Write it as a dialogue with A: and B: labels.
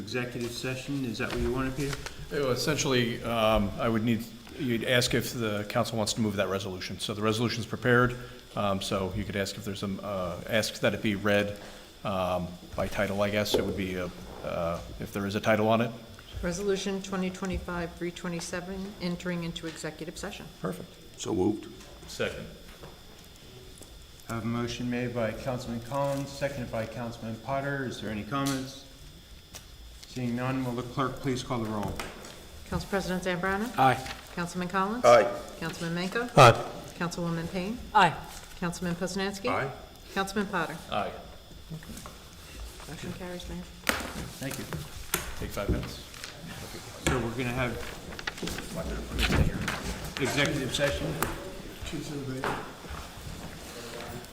A: Executive session, is that what you wanted, Peter?
B: Uh, Essentially, um, I would need, you'd ask if the council wants to move that resolution. So the resolution's prepared, um, so you could ask if there's some, uh, ask that it be read um, by title, I guess. It would be, uh, uh, if there is a title on it.
C: Resolution 2025-327, entering into executive session.
B: Perfect.
D: So moved.
B: Second.
A: I Have a motion made by Councilman Collins, seconded by Councilman Potter. Is there any comments? Seeing none, will the clerk please call the roll?
C: Council President Zambrana?
D: Aye.
C: Councilman Collins?
D: Aye.
C: Councilman Manco?
D: Aye.
C: Councilwoman Payne?
E: Aye.
C: Councilman Poznanski?
D: Aye.
C: Councilman Potter?
B: Aye.
C: Motion carries, Mayor.
A: Thank you.
B: Take five minutes.
A: So we're gonna have executive session?